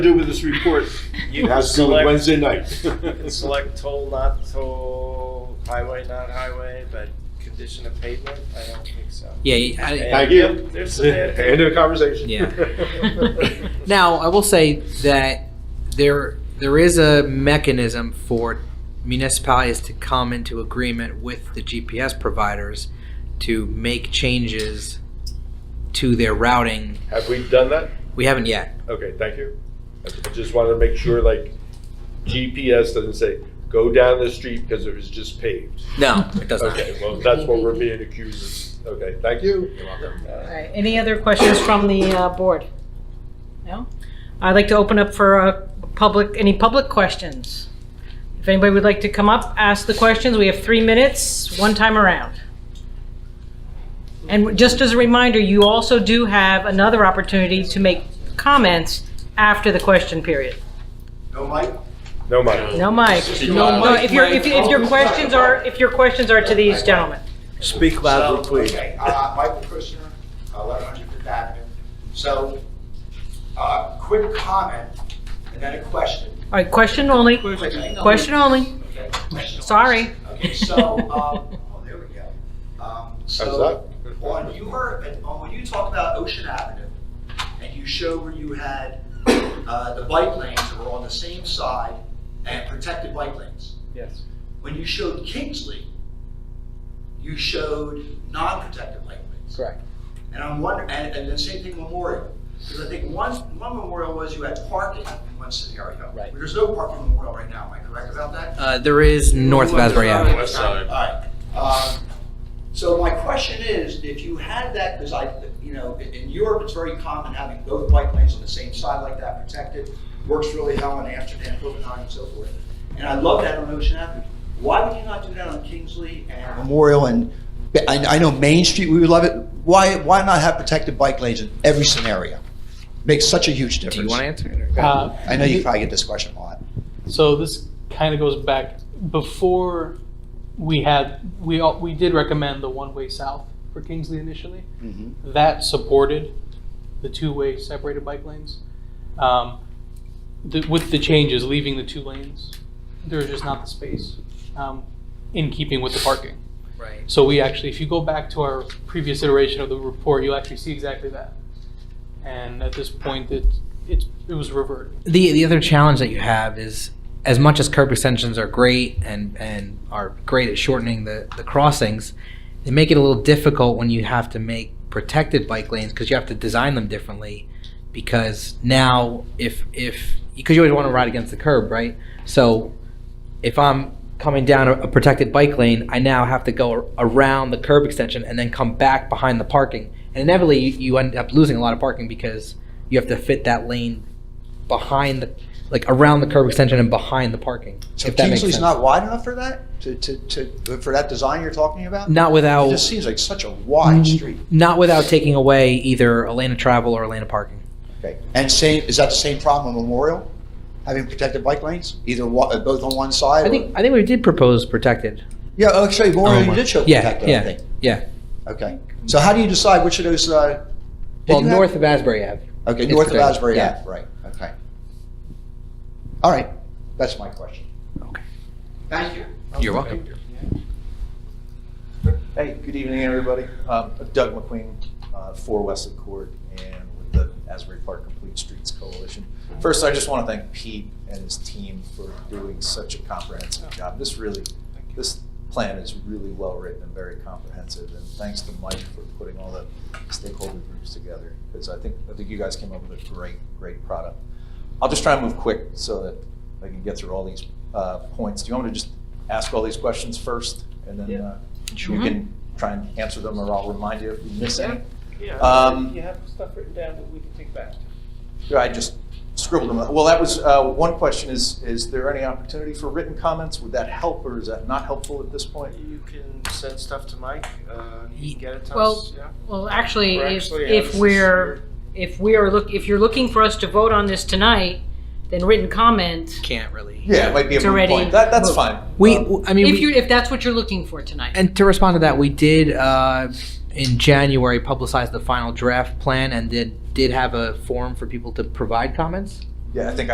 do with this report? You can That's another select- Wednesday night. You can select toll, not toll, highway, not highway, but condition of pavement, I don't think so. Yeah, I, Thank you. There's some End of the conversation. Yeah. now I will say that there there is a mechanism for municipalities to come into agreement with the GPS providers to make changes to their routing. Have we done that? We haven't yet. Okay, thank you. I just wanted to make sure, like, GPS doesn't say, go down the street because it was just paved. No, it does not. Okay, well, that's what we're being accused of. Okay, thank you. You're welcome. All right, any other questions from the uh, board? No? I'd like to open up for uh, public, any public questions? If anybody would like to come up, ask the questions, we have three minutes, one time around. And just as a reminder, you also do have another opportunity to make comments after the question period. No money. No mic. loud. No, if your, if if your questions are, if your questions are to these gentlemen. Speak So, Okay, uh, Michael Kushner, uh, eleven hundred Fifth Avenue. So, uh, quick comment and then a question. All right, question only, Quickly. question only, Okay, question. sorry. Okay, so, um, oh, there we go. Um, How's So, that? on your, on, um, when you talk about Ocean Avenue, and you show where you had, uh, the bike lanes that were on the same side and protected bike lanes. Yes. When you showed Kingsley, you showed non-protected bike lanes. Correct. And I'm wondering, and, and the same thing Memorial, because I think one, one Memorial was you had parking in one scenario. Right. There's no parking in Memorial right now, am I correct about that? Uh, there is north of Asbury uh, Avenue. West All side. right. Um, So my question is, if you had that, because I, you know, in- in Europe, it's very common having both bike lanes on the same side like that protected. Works really well in Amsterdam, Copenhagen, and so forth. And I love that on Ocean Avenue. Why would you not do that on Kingsley and Memorial and, I, I know Main Street, we would love it. Why, why not have protected bike lanes in every scenario? Makes such a huge difference. Do you want to answer it? or- Uh, I know you probably get this question a lot. So this kind of goes back before we had we all, we did recommend the one way south for Kingsley initially. That supported the two way separated bike lanes. Um, the, with the changes, leaving the two lanes, there's just not the space um, in keeping with the parking. Right. So we actually, if you go back to our previous iteration of the report, you'll actually see exactly that. And at this point, it it, it was reverted. The the other challenge that you have is as much as curb extensions are great and and are great at shortening the the crossings, they make it a little difficult when you have to make protected bike lanes because you have to design them differently because now if if because you always want to ride against the curb, right? So if I'm coming down a, a protected bike lane, I now have to go ar- around the curb extension and then come back behind the parking. And inevitably, you, you end up losing a lot of parking because you have to fit that lane behind the, like around the curb extension and behind the parking. So if that makes Kingsley's sense. not wide enough for that, to, to, to, for that design you're talking about? Not It without just seems like such a Mm-hmm. wide street. not without taking away either a lane of travel or a lane of parking. Okay. And same, is that the same problem with Memorial? Having protected bike lanes, either wa- uh, both on one side? I or- think I think we did propose protected. Yeah, oh, actually, Oh Memorial, you my- did show yeah, protected, I yeah. think. Yeah. Okay. So how do you decide which of those, uh? did Well, you have- north of Asbury Ave. Okay, It's north of protected, Asbury yeah. Ave, right, okay. All right, that's my question. Thank you. You're welcome. Hey, good evening, everybody. Um, Doug McQueen, uh, for Wesley Court and with the Asbury Park Complete Streets Coalition. First, I just want to thank Pete and his team for doing such a comprehensive job. This really, this plan is really well-written and very comprehensive, and thanks to Mike for putting all the stakeholder groups together, because I think, I think you guys came up with a great, great product. I'll just try and move quick so that I can get through all these uh, points. Do you want me to just ask all these questions first, and then uh, you can try and answer them, or I'll remind you if you miss any? Yeah, Um, you have stuff written down that we can take back. Yeah, I just scribbled them. Well, that was, uh, one question is, is there any opportunity for written comments? Would that help, or is that not helpful at this point? You can send stuff to Mike, uh, he can get it to Well, us, yeah. Well, actually, Or if, actually, if Alice's we're, if we are look, if you're looking for us to vote on this tonight, then written comment, Can't really. Yeah, it might be a It's moot already point. That, that's moot. fine. We Um, I mean if we- you, if that's what you're looking for tonight. And to respond to that, we did uh, in January publicize the final draft plan and did did have a forum for people to provide comments. Yeah, I think